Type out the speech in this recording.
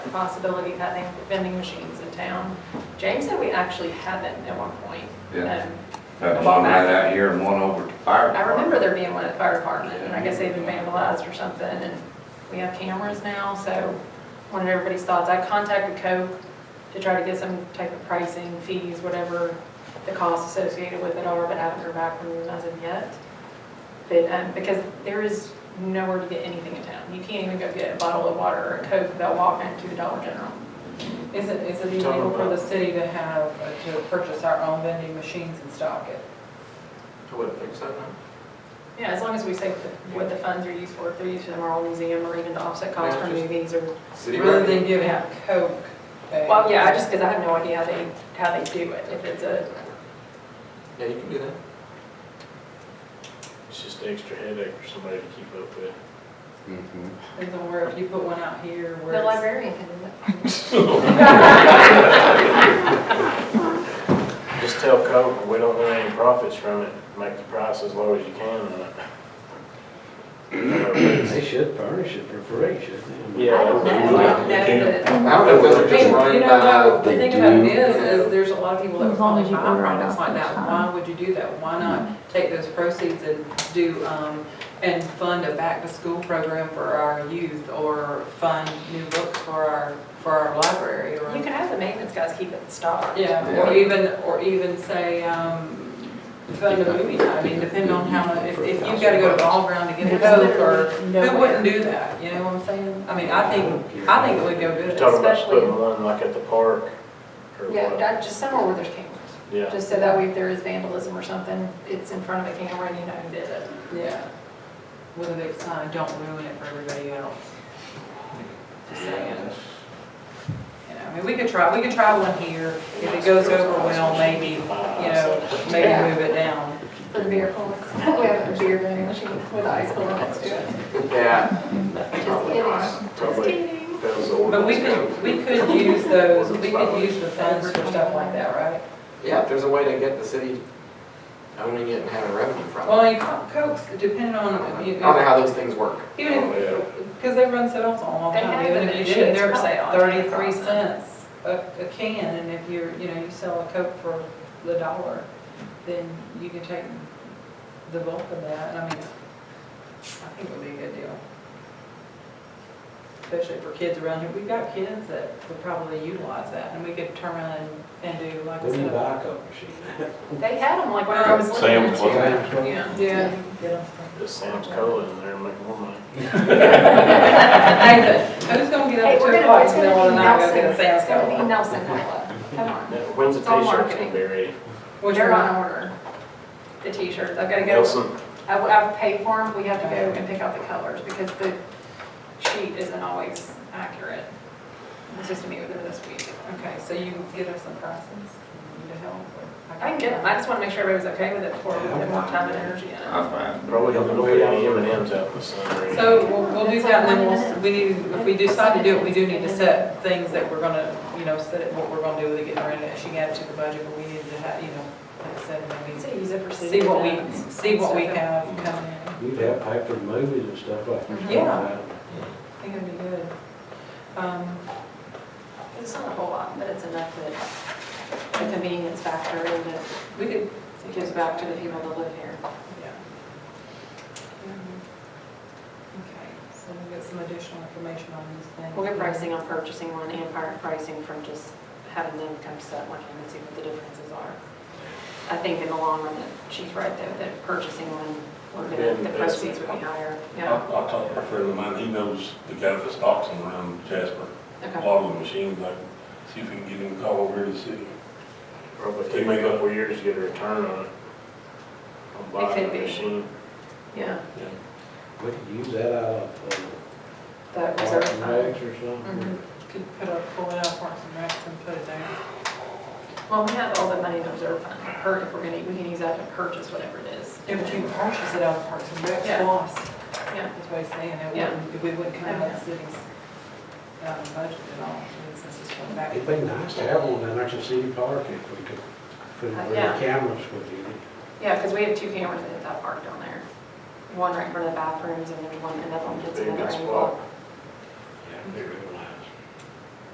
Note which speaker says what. Speaker 1: possibility of having vending machines in town. James said we actually haven't at one point.
Speaker 2: Yeah.
Speaker 1: Um,
Speaker 2: That's one right out here and one over to fire.
Speaker 1: I remember there being one at the fire department, and I guess they've been vandalized or something, and we have cameras now, so wanted everybody's thoughts. I contacted Coke to try to get some type of pricing, fees, whatever the costs associated with it are, but haven't heard back from them as of yet. But, um, because there is nowhere to get anything in town. You can't even go get a bottle of water or a Coke without walking to the Dollar General.
Speaker 3: Is it, is it illegal for the city to have, uh, to purchase our own vending machines and stock it?
Speaker 4: I wouldn't think so, no.
Speaker 1: Yeah, as long as we say what the- what the funds are used for, if they're used for the Marl Museum or even to offset costs for
Speaker 4: Yeah, just-
Speaker 1: movies or
Speaker 4: City
Speaker 3: Rather
Speaker 4: revenue.
Speaker 3: than giving out Coke. uh,
Speaker 1: Well, yeah, I just, because I have no idea how they, how they do it, if it's a,
Speaker 4: Yeah, you can do that.
Speaker 5: It's just an extra headache for somebody to keep up with.
Speaker 2: Mhm.
Speaker 3: Depends on where, if you put one out here, where
Speaker 1: the
Speaker 3: it's-
Speaker 1: librarian can do it.
Speaker 5: Just tell Coke, we don't want any profits from it, make the price as low as you can on it.
Speaker 6: They should furnish it for free, shouldn't they?
Speaker 1: I don't know, I don't know that.
Speaker 4: I don't know whether
Speaker 3: I mean,
Speaker 4: just
Speaker 3: you
Speaker 4: running
Speaker 3: know,
Speaker 4: by.
Speaker 3: the thing about it is, is there's a lot of people that would
Speaker 7: As long
Speaker 3: probably
Speaker 7: as you
Speaker 3: buy
Speaker 7: order it
Speaker 3: products
Speaker 7: off
Speaker 3: like
Speaker 7: the
Speaker 3: that,
Speaker 7: shelf.
Speaker 3: why would you do that? Why
Speaker 7: Mm-hmm.
Speaker 3: not take those proceeds and do, um, and fund a back-to-school program for our youth, or fund new books for our, for our library, or.
Speaker 1: You can have the maintenance guys keep it stocked.
Speaker 3: Yeah, or even, or even say, um, fund a movie night, I mean, depending on how, if, if you've gotta go to the ball ground to get a
Speaker 1: There's
Speaker 3: Coke, or,
Speaker 1: literally
Speaker 3: who wouldn't do that, you know what I'm saying? I mean, I think, I think it would go
Speaker 5: You're
Speaker 3: good.
Speaker 5: talking about
Speaker 1: Especially-
Speaker 5: putting one like at the park or
Speaker 1: Yeah,
Speaker 5: what?
Speaker 1: that- just somewhere where there's cameras,
Speaker 5: Yeah,
Speaker 1: just so that way if there is vandalism or something, it's in front of a camera and you know who did it.
Speaker 3: Yeah. With a big sign, don't ruin it for everybody else. Just saying. You know, I mean, we could try, we could try one here, if it goes over well, maybe, you know,
Speaker 1: Yeah.
Speaker 3: maybe move it down.
Speaker 1: For the beer coolers, we have a beer vending machine with ice cold next to it.
Speaker 4: Yeah.
Speaker 1: Just kidding, just
Speaker 5: Probably.
Speaker 1: kidding.
Speaker 5: fails the
Speaker 3: But we could,
Speaker 5: ordinance code.
Speaker 3: we could use those, we could use the funds for stuff like that, right?
Speaker 4: Yeah, if there's a way to get the city owning it and having revenue from it.
Speaker 3: Well, you co- Cokes, depending on,
Speaker 4: I
Speaker 3: you
Speaker 4: don't know
Speaker 3: know,
Speaker 4: how those things work.
Speaker 3: even if, because they run sales on all the
Speaker 1: They
Speaker 3: time,
Speaker 1: have,
Speaker 3: even
Speaker 1: and
Speaker 3: if you
Speaker 1: they do.
Speaker 3: did,
Speaker 1: It's
Speaker 3: they're
Speaker 1: probably on
Speaker 3: thirty-three
Speaker 1: Amazon.
Speaker 3: cents a, a can, and if you're, you know, you sell a Coke for the dollar, then you can take the bulk of that, I mean, I think it would be a good deal. Especially for kids around here, we've got kids that would probably utilize that, and we could turn around and- and do like I
Speaker 6: We need a
Speaker 3: said.
Speaker 6: backup machine.
Speaker 1: They had them like when I was looking
Speaker 8: Sam's
Speaker 1: at
Speaker 8: one.
Speaker 1: you. Yeah.
Speaker 3: Yeah. Yeah.
Speaker 5: Just Sam's Cola in there and make more money.
Speaker 3: Hey, who's gonna get
Speaker 1: Hey,
Speaker 3: up at
Speaker 1: we're
Speaker 3: two
Speaker 1: gonna,
Speaker 3: o'clock
Speaker 1: it's gonna be
Speaker 3: in the middle of the night, go
Speaker 1: Nelson,
Speaker 3: get a sales
Speaker 1: it's gonna be
Speaker 3: call?
Speaker 1: Nelson Cola, come on.
Speaker 5: Now, When's the
Speaker 1: It's all
Speaker 5: t-shirts
Speaker 1: marketing.
Speaker 5: gonna be ready?
Speaker 3: Which
Speaker 1: They're
Speaker 3: one?
Speaker 1: on order, the t-shirts, I've gotta go,
Speaker 5: Nelson,
Speaker 1: I've, I've paid for them, we have to go and pick out the colors, because the sheet isn't always accurate. It's just me with her this week.
Speaker 3: Okay, so you can get us some prices? You need to help, or-
Speaker 1: I can get them, I just wanna make sure everybody's okay with it before we put more time and energy in it.
Speaker 2: I'm fine.
Speaker 5: probably don't put any M and M's out in the sun or anything.
Speaker 3: So we'll, we'll do that, and then we'll, we need, if we decide to do it, we do need to set things that we're gonna, you know, set it, what we're gonna do with it, getting rid of it, she can add it to the budget, but we need to have, you know, like I said, maybe
Speaker 1: So use it for city
Speaker 3: see what we,
Speaker 1: events.
Speaker 3: see what we have coming in.
Speaker 6: You'd have paid for movies and stuff like that.
Speaker 3: Yeah. I think it'd be good. Um,
Speaker 1: It's not a whole lot, but it's enough that the convenience factor and that
Speaker 3: we could.
Speaker 1: it gives back to the people that live here.
Speaker 3: Yeah. Um, Okay, so we'll get some additional information on these things.
Speaker 1: We'll get pricing on purchasing one and pri- pricing from just having them come set one and see what the differences are. I think in the long run, that she's right though, that purchasing one, we're gonna, the proceeds would be higher.
Speaker 8: I,
Speaker 1: Yeah,
Speaker 8: I talked to a friend of mine, he knows the guy that stocks them around Jasper, a
Speaker 1: okay.
Speaker 8: lot of the machines, like, see if we can get him to call over here to the city.
Speaker 5: Probably take a couple of years to get a return on it. On
Speaker 1: It
Speaker 5: buying
Speaker 1: could
Speaker 5: a
Speaker 1: be.
Speaker 5: machine.
Speaker 1: Yeah,
Speaker 6: We could use that out of,
Speaker 1: that
Speaker 6: uh,
Speaker 1: reserve
Speaker 6: Parks and
Speaker 1: fund.
Speaker 6: Recs or something.
Speaker 1: Mhm.
Speaker 3: Could put up, pull it out, Parks and Recs and put it there.
Speaker 1: Well, we have all the money in the reserve fund, Her- if we're gonna, we can use that to purchase whatever it is.
Speaker 3: If you purchase it out of Parks and Recs,
Speaker 1: Yeah.
Speaker 3: it's lost,
Speaker 1: Yeah,
Speaker 3: that's what I'm saying, it
Speaker 1: Yeah.
Speaker 3: wouldn't, we wouldn't come out of the city's, um, budget at all, since it's going back.
Speaker 6: It'd be nice to have one in Archer City Park if we could put it where
Speaker 1: Uh, Yeah.
Speaker 6: the cameras would be.
Speaker 1: yeah, because we have two cameras at that park down there. One right in front of the bathrooms and then one, another one that's
Speaker 5: Be a
Speaker 1: in the
Speaker 5: good
Speaker 1: angle.
Speaker 5: spot.
Speaker 6: Yeah.